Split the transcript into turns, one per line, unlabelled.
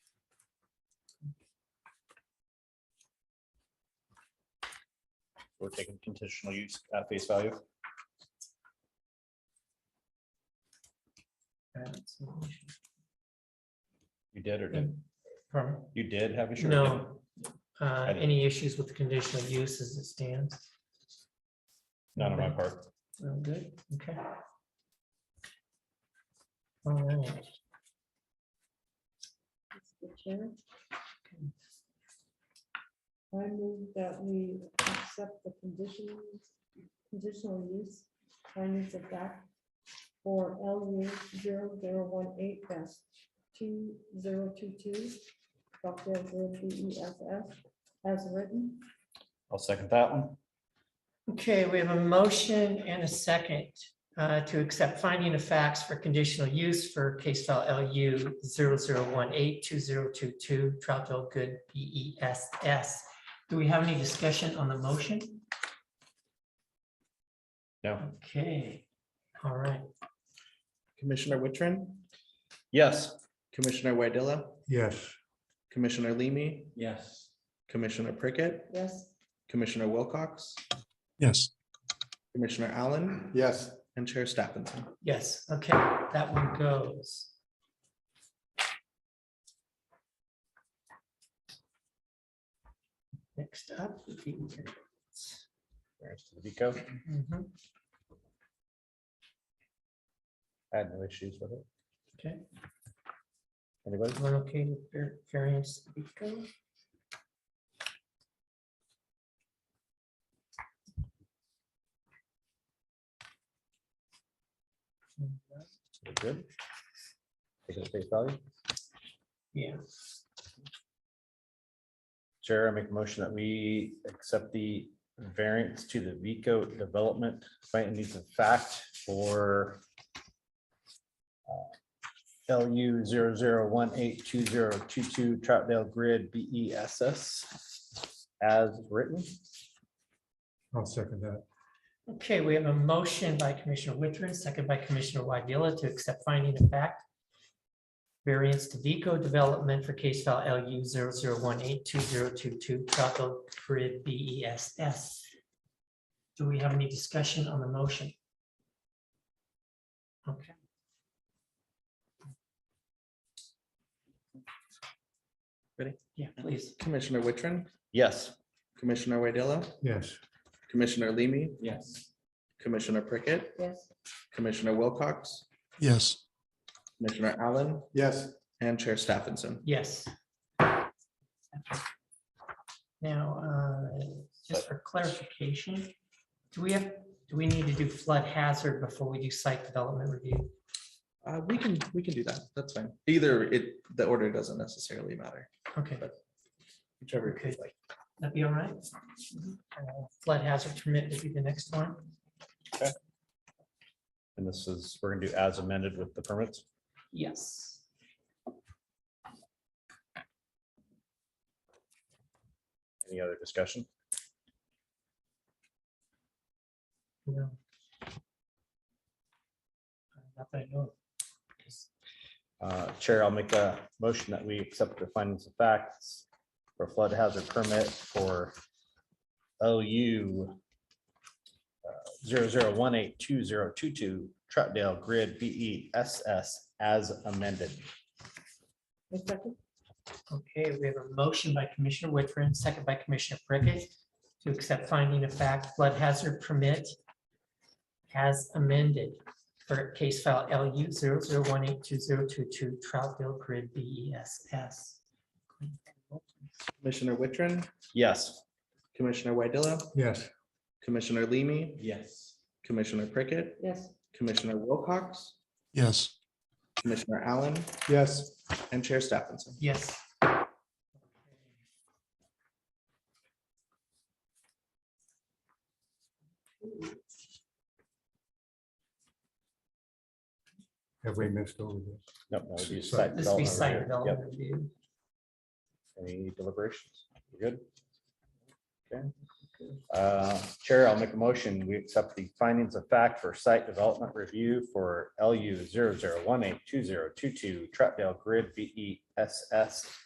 We're taking conditional use at face value. You did or did,
Pardon?
you did have a sure?
No, uh, any issues with the conditional use as it stands?
Not on my part.
Oh, good, okay. All right.
Mr. Chair. I move that we accept the conditions, conditional use, findings of fact for L zero zero one eight dash two zero two two, Buckdale Road B E F F, as written.
I'll second that one.
Okay, we have a motion and a second uh, to accept finding of facts for conditional use for case file LU 00182022 Troutdale Good BESS. Do we have any discussion on the motion?
No.
Okay, all right.
Commissioner Wittrin,
Yes.
Commissioner Wadilla,
yes,
Commissioner Leamy,
yes,
Commissioner Prickett,
Yes,
Commissioner Wilcox,
yes,
Commissioner Allen,
yes,
and Chair Stephenson.
Yes, okay, that one goes. Next up. would be-
There's the Vico.
Mhm,
I had no issues with it.
Okay,
Anybody?
everyone okay with var- variance? Rico?
We're Good. Take it at face value.
Yeah,
Chair, I make a motion that we accept the variance to the Vico development findings of fact for uh, LU zero zero one eight two zero two two Troutdale Grid BESS as written.
I'll second that,
okay, we have a motion by Commissioner Wittrin, second by Commissioner Wadilla to accept finding of fact. Variance to Vico Development for case file LU 00182022 Tropical Grid BESS. E Do we have any discussion on the motion? Okay.
Ready?
Yeah, please.
Commissioner Wittrin,
Yes.
Commissioner Wadilla,
yes,
Commissioner Leamy,
yes,
Commissioner Prickett,
yes,
Commissioner Wilcox,
yes,
Commissioner Allen,
yes.
and Chair Stephenson.
Yes. Now, uh, just for clarification, do we have, do we need to do flood hazard before we do site development review?
Uh, we can, we can do that. That's fine. Either it, the order doesn't necessarily matter.
Okay,
Whichever. you
Okay.
like.
that'd be all right. Uh, Flood hazard permit would be the next one.
And this is, we're gonna do as amended with the permits.
Yes.
Any other discussion?
No. Uh, Not that I know of.
Uh, Chair, I'll make a motion that we accept the findings of facts for flood hazard permit for OU uh, zero zero one eight two zero two two Troutdale Grid BESS as amended.
I second,
Okay, we have a motion by Commissioner Whitford, second by Commissioner Prickett to accept finding of fact flood hazard permit as amended for case file LU 00182022 Troutdale Grid E BESS.
Commissioner Wittrin,
Yes.
Commissioner Wadilla,
yes.
Commissioner Leamy,
yes.
Commissioner Prickett,
yes.
Commissioner Wilcox,
Yes.
Commissioner Allen,
Yes.
and Chair Stephenson.
Yes.
Have we missed over this?
Nope, that would be
So-
site
This will be
development
site
review. Yep.
development review.
Any deliberations? We're Good? Okay. Uh, Chair, I'll make a motion. We accept the findings of fact for site development review E for LU zero zero one eight two zero two two Troutdale Grid BESS